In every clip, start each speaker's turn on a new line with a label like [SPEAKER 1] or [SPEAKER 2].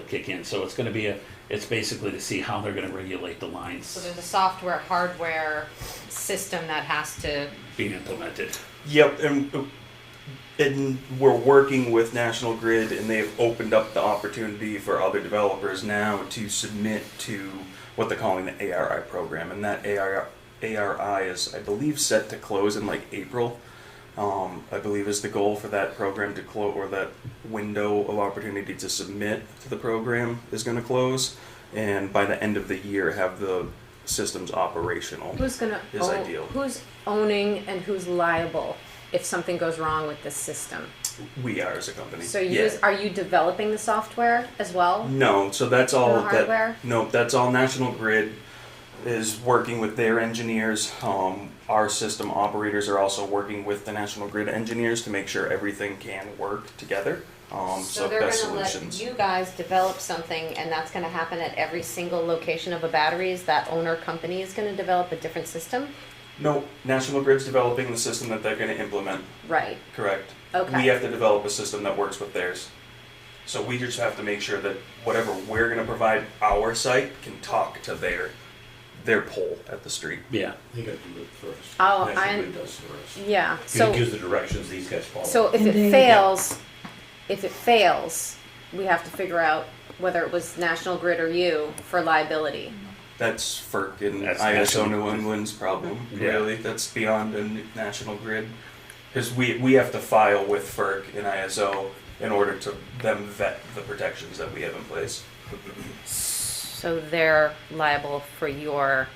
[SPEAKER 1] kick in. So it's going to be a, it's basically to see how they're going to regulate the
[SPEAKER 2] So
[SPEAKER 1] lines
[SPEAKER 2] there's a software, hardware system that has to,
[SPEAKER 1] being implemented.
[SPEAKER 3] Yep, and and we're working with National Grid, and they've opened up the opportunity for other developers now to submit to what they're calling the ARI program, and that ARI ARI is, I believe, set to close in like April. Um, I believe is the goal for that program to close, or that window of opportunity to submit to the program is going to close, and by the end of the year, have the systems operational.
[SPEAKER 4] Who's gonna
[SPEAKER 3] Is
[SPEAKER 4] own,
[SPEAKER 3] ideal.
[SPEAKER 4] who's owning and who's liable if something goes wrong with this system?
[SPEAKER 3] We are as a company.
[SPEAKER 4] So you
[SPEAKER 3] Yeah.
[SPEAKER 4] guys- are you developing the software as well?
[SPEAKER 3] No, so that's all
[SPEAKER 4] No
[SPEAKER 3] that.
[SPEAKER 4] hardware?
[SPEAKER 3] No, that's all National Grid is working with their engineers. Um, our system operators are also working with the National Grid engineers to make sure everything can work together. Um, so,
[SPEAKER 2] so they're
[SPEAKER 3] best
[SPEAKER 2] gonna let
[SPEAKER 3] solutions.
[SPEAKER 2] you guys develop something and that's gonna happen at every single location of a battery? Is that owner company is gonna develop a different system?
[SPEAKER 3] no, National Grid's developing the system that they're going to implement.
[SPEAKER 4] Right.
[SPEAKER 3] Correct.
[SPEAKER 4] Okay.
[SPEAKER 3] We have to develop a system that works with theirs. So we just have to make sure that whatever we're going to provide our site can talk to their their pole at the street.
[SPEAKER 1] Yeah.
[SPEAKER 5] They gotta do it first.
[SPEAKER 4] Oh,
[SPEAKER 5] National
[SPEAKER 4] I'm-
[SPEAKER 5] Grid does first.
[SPEAKER 4] Yeah.
[SPEAKER 5] It
[SPEAKER 4] So
[SPEAKER 5] gives the directions, these guys follow.
[SPEAKER 4] so if it fails, if it fails, we have to figure out whether it was National Grid or you for liability.
[SPEAKER 3] That's FERC and
[SPEAKER 1] That's
[SPEAKER 3] ISO
[SPEAKER 1] national-
[SPEAKER 3] New England's problem,
[SPEAKER 1] Yeah.
[SPEAKER 3] really. That's beyond a n- national grid. Because we, we have to file with FERC and ISO in order to them vet the protections that we have in place.
[SPEAKER 2] So they're liable for your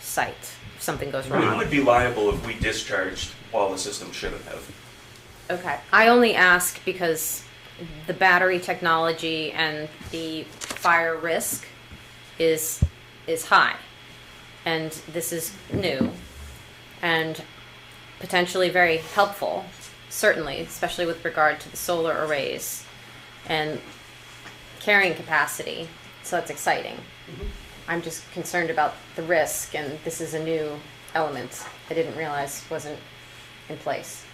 [SPEAKER 2] site if something goes
[SPEAKER 3] We
[SPEAKER 2] wrong?
[SPEAKER 3] would be liable if we discharged while the system shouldn't have.
[SPEAKER 2] Okay, I only ask because the battery technology and the fire risk is, is high. And this is new and potentially very helpful, certainly, especially with regard to the solar arrays and carrying capacity. So that's exciting. I'm just concerned about the risk and this is a new element I didn't realize wasn't in place.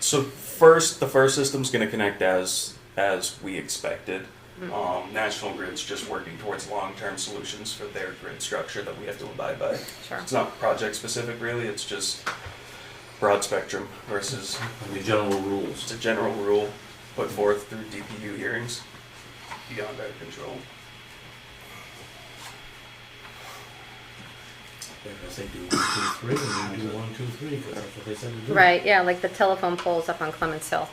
[SPEAKER 3] So first, the first system's going to connect as as we expected. Um, National Grid's just working towards long-term solutions for their grid structure that we have to abide by.
[SPEAKER 2] Sure.
[SPEAKER 3] It's not project specific, really. It's just broad spectrum versus
[SPEAKER 5] And The general
[SPEAKER 3] it's
[SPEAKER 5] rules.
[SPEAKER 3] a general rule put forth through DPU hearings beyond our control.
[SPEAKER 5] I guess they do one, two, three, and you do one, two, three, because that's what they said to do.
[SPEAKER 2] Right, yeah, like the telephone poles up on Clements Hill.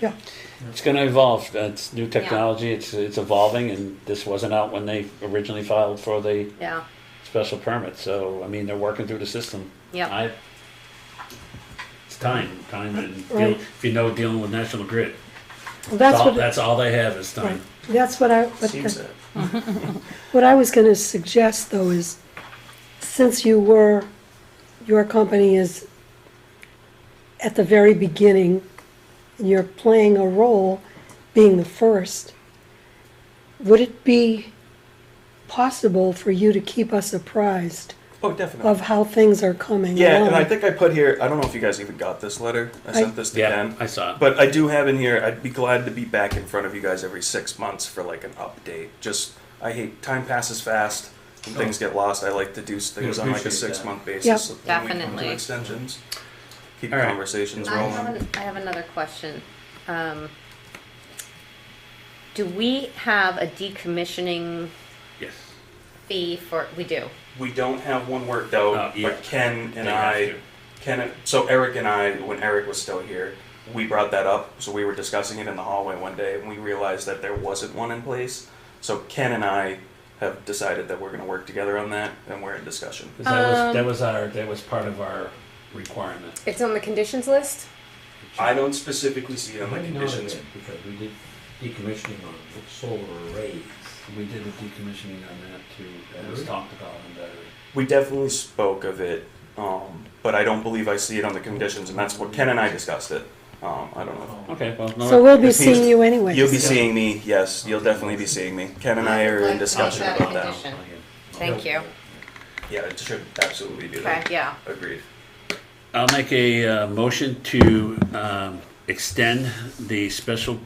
[SPEAKER 1] It's going to evolve. It's new technology. It's it's evolving, and this wasn't out when they originally filed for the
[SPEAKER 2] Yeah,
[SPEAKER 1] special permit. So I mean, they're working through the system.
[SPEAKER 2] Yep.
[SPEAKER 1] I, it's time, time, and deal,
[SPEAKER 6] Right.
[SPEAKER 1] if you know dealing with National Grid,
[SPEAKER 6] Well, That's
[SPEAKER 1] all,
[SPEAKER 6] what,
[SPEAKER 1] that's all they have is time.
[SPEAKER 6] right. that's what I, what
[SPEAKER 3] Seems
[SPEAKER 6] the-
[SPEAKER 3] that
[SPEAKER 6] what I was gonna suggest though is, since you were, your company is at the very beginning, and you're playing a role being the first, would it be possible for you to keep us apprised
[SPEAKER 3] oh, definitely.
[SPEAKER 6] of how things are coming
[SPEAKER 3] yeah, and I
[SPEAKER 6] along?
[SPEAKER 3] think I put here. I don't know if you guys even got this letter. I, sent this to
[SPEAKER 1] Yeah,
[SPEAKER 3] Ken.
[SPEAKER 1] I saw it.
[SPEAKER 3] But I do have in here, I'd be glad to be back in front of you guys every six months for like an update. Just, I hate, time passes fast and things get lost. I like to do things on like a
[SPEAKER 5] appreciate that.
[SPEAKER 3] six month
[SPEAKER 6] Yep.
[SPEAKER 3] basis. so when we come to
[SPEAKER 2] Definitely.
[SPEAKER 3] extensions. Keep
[SPEAKER 1] All right.
[SPEAKER 3] conversations
[SPEAKER 2] I have,
[SPEAKER 3] rolling.
[SPEAKER 2] an, I have another question. Um, do we have a decommissioning
[SPEAKER 1] Yes.
[SPEAKER 2] fee for, we do?
[SPEAKER 3] We don't have one worked out,
[SPEAKER 1] Oh, yeah.
[SPEAKER 3] but Ken and
[SPEAKER 1] They have
[SPEAKER 3] I,
[SPEAKER 1] to.
[SPEAKER 3] Ken, so Eric and I, when Eric was still here, we brought that up. So we were discussing it in the hallway one day and we realized that there wasn't one in place. So Ken and I have decided that we're going to work together on that and we're in discussion.
[SPEAKER 1] 'Cause that was
[SPEAKER 2] Um,
[SPEAKER 1] that was our that was part of our requirement.
[SPEAKER 4] It's on the conditions list.
[SPEAKER 3] I don't specifically see it on
[SPEAKER 5] Why
[SPEAKER 3] the
[SPEAKER 5] not
[SPEAKER 3] conditions.
[SPEAKER 5] again? Because we did decommissioning on solar arrays.
[SPEAKER 1] We did a decommissioning on that too. That was
[SPEAKER 5] Really?
[SPEAKER 1] talked about on battery.
[SPEAKER 3] We definitely spoke of it, um, but I don't believe I see it on the conditions, and that's what Ken and I discussed it. Um, I don't know.
[SPEAKER 1] Okay, well, no,
[SPEAKER 6] So we'll be
[SPEAKER 3] This means
[SPEAKER 6] seeing you anyway.
[SPEAKER 3] You'll be seeing me, yes, you'll definitely be seeing me. Ken and I are in discussion
[SPEAKER 2] Like,
[SPEAKER 3] about
[SPEAKER 2] like
[SPEAKER 3] that.
[SPEAKER 2] condition. Thank you.
[SPEAKER 3] Yeah, it should absolutely be
[SPEAKER 2] Okay,
[SPEAKER 3] there.
[SPEAKER 2] yeah.
[SPEAKER 3] Agreed.
[SPEAKER 1] I'll make a uh, motion to um, extend the special